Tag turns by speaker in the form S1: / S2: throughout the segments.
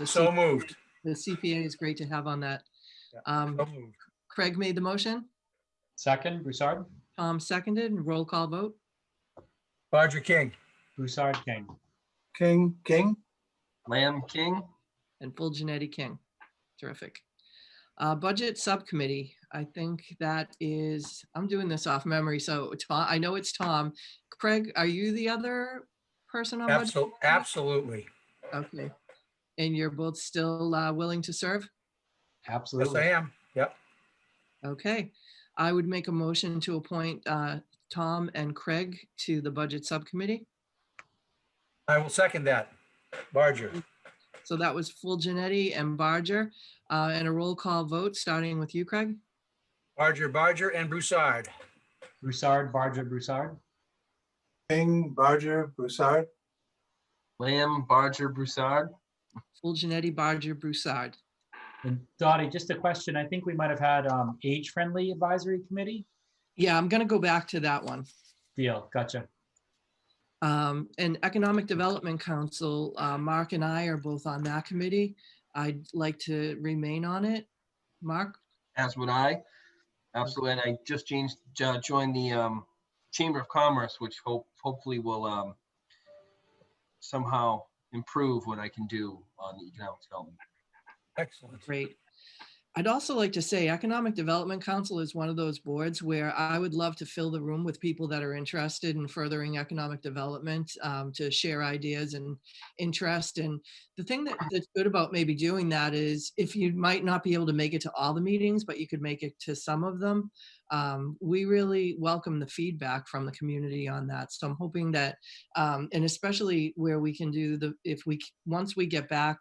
S1: The
S2: So
S1: C-
S2: moved.
S1: the CPA is great to have on that.
S2: Yeah.
S1: Um,
S2: So moved.
S1: Craig made the motion,
S3: Second, Broussard?
S1: Tom seconded, and roll call vote.
S2: Barger King.
S3: Broussard, King.
S4: King, King,
S5: Lamb King,
S1: and full Janetti King. Terrific. Uh, budget subcommittee, I think that is, I'm doing this off memory, so Tom, I know it's Tom. Craig, are you the other person on budget?
S2: Absol- Absolutely.
S1: Okay. And you're both still uh, willing to serve?
S2: Yes, I
S3: Absolutely.
S2: am. Yep.
S1: Okay. I would make a motion to appoint uh, Tom and Craig to the budget subcommittee.
S2: I will second that. Barger.
S1: So that was full Janetti and Barger, uh, and a roll call vote, starting with you, Craig?
S2: Barger, Barger, and Broussard.
S3: Broussard, Barger, Broussard?
S4: King, Barger, Broussard,
S5: Lamb Barger Broussard.
S1: Full Janetti, Barger, Broussard.
S3: And Dottie, just a question. I think we might have had um, age-friendly advisory committee?
S1: Yeah, I'm going to go back to that one.
S3: Deal, gotcha.
S1: Um, and Economic Development Council, uh, Mark and I are both on that committee. I'd like to remain on it. Mark,
S5: as would I. Absolutely. And I just changed, jo- joined the um, Chamber of Commerce, which hope, hopefully will um, somehow improve what I can do on the economic development.
S2: Excellent.
S1: great. I'd also like to say Economic Development Council is one of those boards where I would love to fill the room with people that are interested in furthering economic development, um, to share ideas and interest. And the thing that, that's good about maybe doing that is if you might not be able to make it to all the meetings, but you could make it to some of them, um, we really welcome the feedback from the community on that. So I'm hoping that, um, and especially where we can do the, if we, c- once we get back,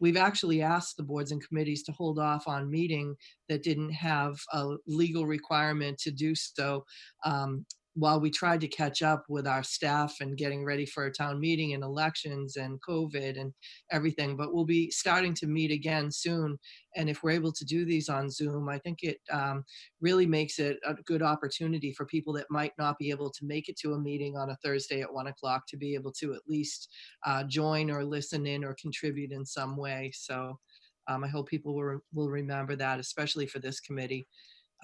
S1: we've actually asked the boards and committees to hold off on meeting that didn't have a legal requirement to do so. Um, while we tried to catch up with our staff and getting ready for a town meeting and elections and COVID and everything, but we'll be starting to meet again soon. And if we're able to do these on Zoom, I think it um, really makes it a good opportunity for people that might not be able to make it to a meeting on a Thursday at one o'clock to be able to at least uh, join or listen in or contribute in some way. So um, I hope people will, will remember that, especially for this committee.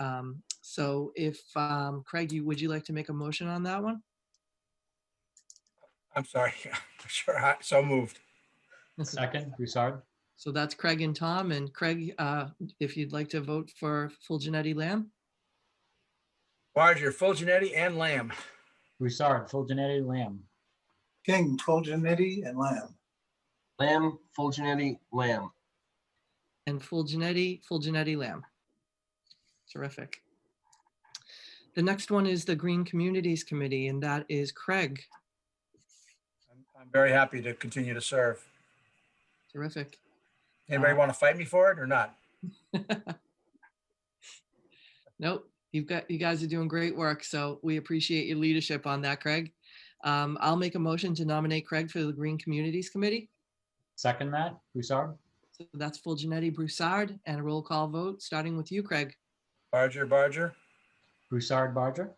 S1: Um, so if um, Craig, you would you like to make a motion on that one?
S2: I'm sorry. Sure. I- So moved.
S3: Second, Broussard?
S1: So that's Craig and Tom. And Craig, uh, if you'd like to vote for full Janetti Lamb,
S2: Barger, Fulgenetti, and Lamb.
S3: Broussard, Fulgenetti, Lamb?
S4: King, Fulgenetti, and Lamb.
S5: Lamb, Fulgenetti, Lamb.
S1: and full Janetti, full Janetti Lamb. Terrific. The next one is the Green Communities Committee, and that is Craig.
S2: I'm- I'm very happy to continue to serve.
S1: Terrific.
S2: Anybody want to fight me for it or not?
S1: Nope, you've got, you guys are doing great work, so we appreciate your leadership on that, Craig. Um, I'll make a motion to nominate Craig for the Green Communities Committee.
S3: Second that, Broussard?
S1: So that's full Janetti Broussard and a roll call vote, starting with you, Craig.
S2: Barger, Barger,
S3: Broussard, Barger?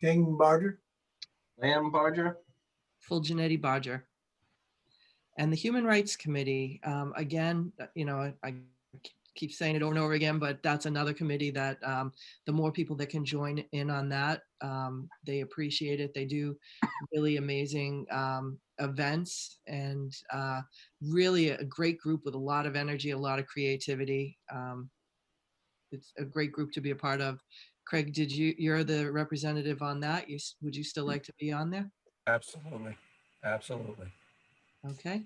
S4: King, Barger,
S5: Lamb Barger,
S1: Full Janetti Barger. And the Human Rights Committee, um, again, uh, you know, I I keep saying it over and over again, but that's another committee that um, the more people that can join in on that, um, they appreciate it. They do really amazing um, events and uh, really a great group with a lot of energy, a lot of creativity. Um, It's a great group to be a part of. Craig, did you, you're the representative on that. You, s- would you still like to be on there?
S2: Absolutely. Absolutely.
S1: Okay.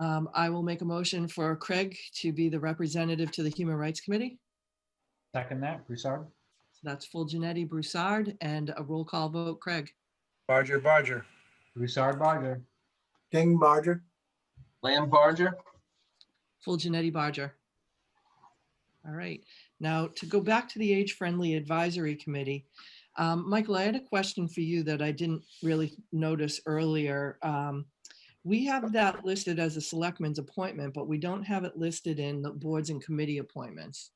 S1: Um, I will make a motion for Craig to be the representative to the Human Rights Committee.
S3: Second that, Broussard?
S1: So that's full Janetti Broussard and a roll call vote, Craig.
S2: Barger, Barger,
S3: Broussard, Barger?
S4: King, Barger,
S5: Lamb Barger,
S1: Full Janetti Barger. All right, now to go back to the Age Friendly Advisory Committee. um, Michael, I had a question for you that I didn't really notice earlier. Um, We have that listed as a selectman's appointment, but we don't have it listed in the boards and committee appointments.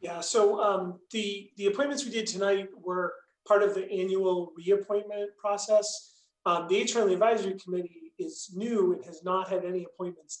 S6: Yeah, so um, the, the appointments we did tonight were part of the annual reappointment process. Um, The Age Friendly Advisory Committee is new and has not had any appointments